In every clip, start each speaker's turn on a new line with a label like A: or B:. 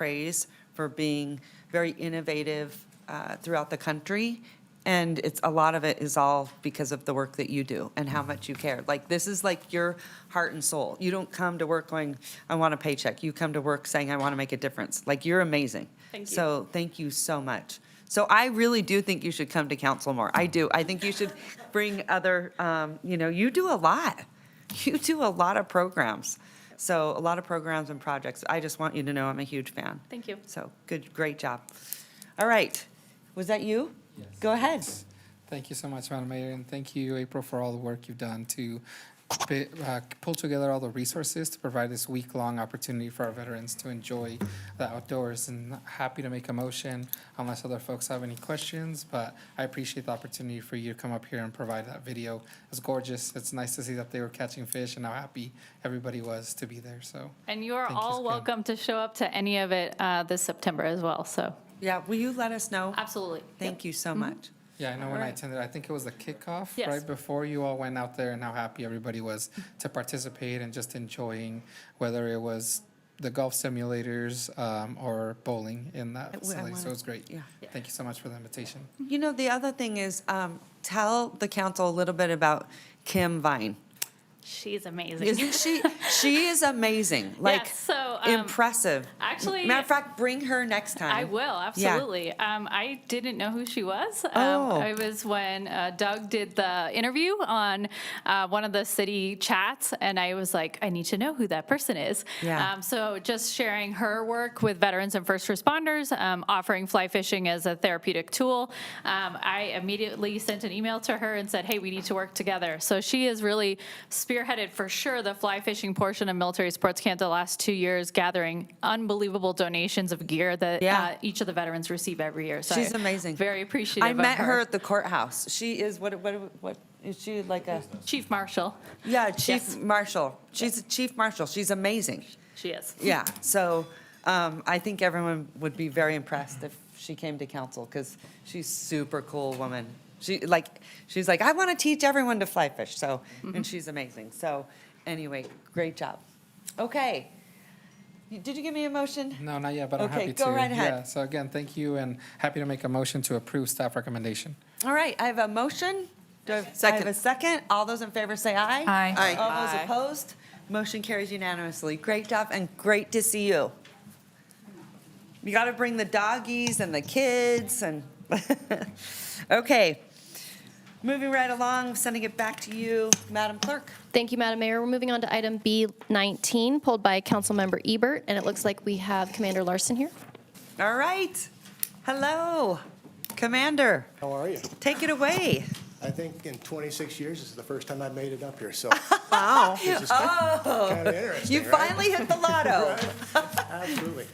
A: praise for being very innovative uh, throughout the country. And it's, a lot of it is all because of the work that you do and how much you care. Like, this is like your heart and soul. You don't come to work going, I want a paycheck. You come to work saying, I want to make a difference. Like, you're amazing.
B: Thank you.
A: So thank you so much. So I really do think you should come to council more. I do. I think you should bring other, um, you know, you do a lot. You do a lot of programs. So a lot of programs and projects. I just want you to know I'm a huge fan.
B: Thank you.
A: So good, great job. All right. Was that you?
C: Yes.
A: Go ahead.
C: Thank you so much, Madam Mayor, and thank you, April, for all the work you've done to pi- uh, pull together all the resources to provide this week-long opportunity for our veterans to enjoy the outdoors. And happy to make a motion unless other folks have any questions, but I appreciate the opportunity for you to come up here and provide that video. It's gorgeous. It's nice to see that they were catching fish and how happy everybody was to be there, so.
B: And you are
C: Thank you,
B: all
C: Scout.
B: welcome to show up to any of it uh, this September as well, so.
A: Yeah, will you let us know?
B: Absolutely.
A: Thank you
B: Mm-hmm.
A: so much.
C: Yeah, I know when I
A: Alright.
C: attended, I think it was the kickoff,
B: Yes.
C: right before you all went out there and how happy everybody was to participate and just enjoying, whether it was the golf simulators um, or bowling in
A: I-
C: that
A: I
C: facility. So
A: wanna-
C: it was great.
A: yeah.
C: Thank you so much for the invitation.
A: You know, the other thing is, um, tell the council a little bit about Kim Vine.
B: She's amazing.
A: Isn't she? She is amazing. Like
B: Yes, so, um,
A: impressive.
B: actually-
A: matter of fact, bring her next time.
B: I will,
A: Yeah.
B: absolutely. Um, I didn't know who she was. Um,
A: Oh.
B: It was when uh, Doug did the interview on uh, one of the city chats, and I was like, I need to know who that person is.
A: Yeah.
B: Um, so just sharing her work with veterans and first responders, um, offering fly fishing as a therapeutic tool. Um, I immediately sent an email to her and said, hey, we need to work together. So she has really spearheaded for sure the fly fishing portion of Military Sports Camp the last two years, gathering unbelievable donations of gear that
A: Yeah.
B: uh, each of the veterans receive every year. So
A: She's
B: I-
A: amazing.
B: Very appreciative.
A: I
B: of
A: met her at the courthouse. She is what? What? What? Is she like a?
B: Chief Marshall.
A: Yeah, chief
B: Yes.
A: marshal. She's a chief marshal. She's amazing.
B: She is.
A: Yeah. So um, I think everyone would be very impressed if she came to council because she's super cool woman. She like she's like I want to teach everyone to fly fish. So
B: Mm-hmm.
A: and she's amazing. So anyway, great job. Okay. You- Did you give me a motion?
C: No, not yet, but I'm
A: Okay,
C: happy to.
A: go right ahead.
C: Yeah, so again, thank you and happy to make a motion to approve staff recommendation.
A: All right, I have a motion. Do I I have a second? All those in favor say aye.
D: Aye. Aye.
A: All those opposed? Motion carries unanimously. Great job and great to see you. You got to bring the doggies and the kids and, okay. Moving right along, sending it back to you, Madam Clerk.
E: Thank you, Madam Mayor. We're moving on to item B19, pulled by Councilmember Ebert, and it looks like we have Commander Larson here.
A: All right. Hello, Commander.
F: How are you?
A: Take it away.
F: I think in 26 years, this is the first time I've made it up here, so
A: Wow. Oh.
F: this is kind of
A: You
F: interesting, right?
A: finally hit the lotto.
F: Absolutely.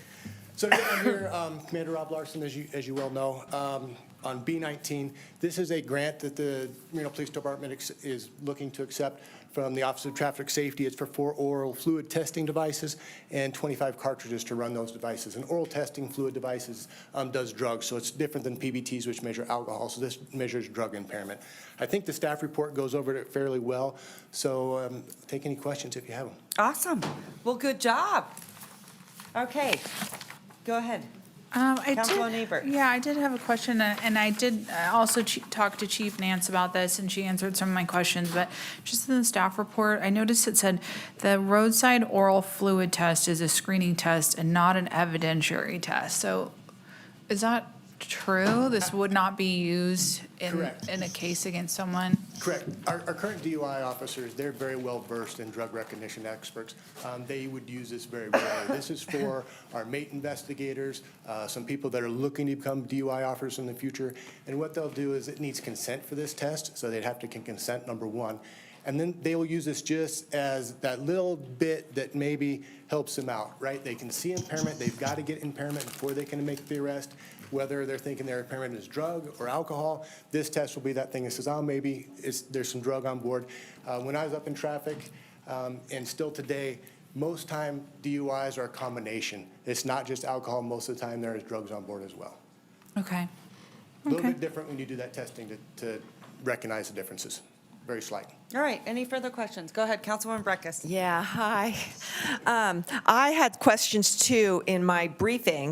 F: So today I'm here, um, Commander Rob Larson, as you, as you well know, um, on B-19. This is a grant that the Reno Police Department ex- is looking to accept from the Office of Traffic Safety. It's for four oral fluid testing devices and 25 cartridges to run those devices. And oral testing fluid devices um, does drugs, so it's different than PBTs, which measure alcohol, so this measures drug impairment. I think the staff report goes over it fairly well, so um, take any questions if you have them.
A: Awesome. Well, good job. Okay, go ahead.
D: Um, I did-
A: Councilwoman Ebert.
D: Yeah, I did have a question, uh, and I did uh, also ch- talk to Chief Nance about this, and she answered some of my questions, but just in the staff report, I noticed it said, "The roadside oral fluid test is a screening test and not an evidentiary test." So is that true? This would not be used in,
F: Correct.
D: in a case against someone?
F: Correct. Our, our current DUI officers, they're very well versed in drug recognition experts. Um, they would use this very well. This is for our mate investigators, uh, some people that are looking to become DUI officers in the future. And what they'll do is it needs consent for this test, so they'd have to con- consent, number one. And then they will use this just as that little bit that maybe helps them out, right? They can see impairment, they've got to get impairment before they can make the arrest. Whether they're thinking their impairment is drug or alcohol, this test will be that thing that says, oh, maybe it's, there's some drug on board. Uh, when I was up in traffic, um, and still today, most time DUIs are a combination. It's not just alcohol, most of the time there is drugs on board as well.
D: Okay,
F: A little
D: Okay.
F: bit different when you do that testing to, to recognize the differences. very slight.
A: All right, any further questions? Go ahead, Councilwoman Breckus.
G: Yeah, hi. Um, I had questions too in my briefing,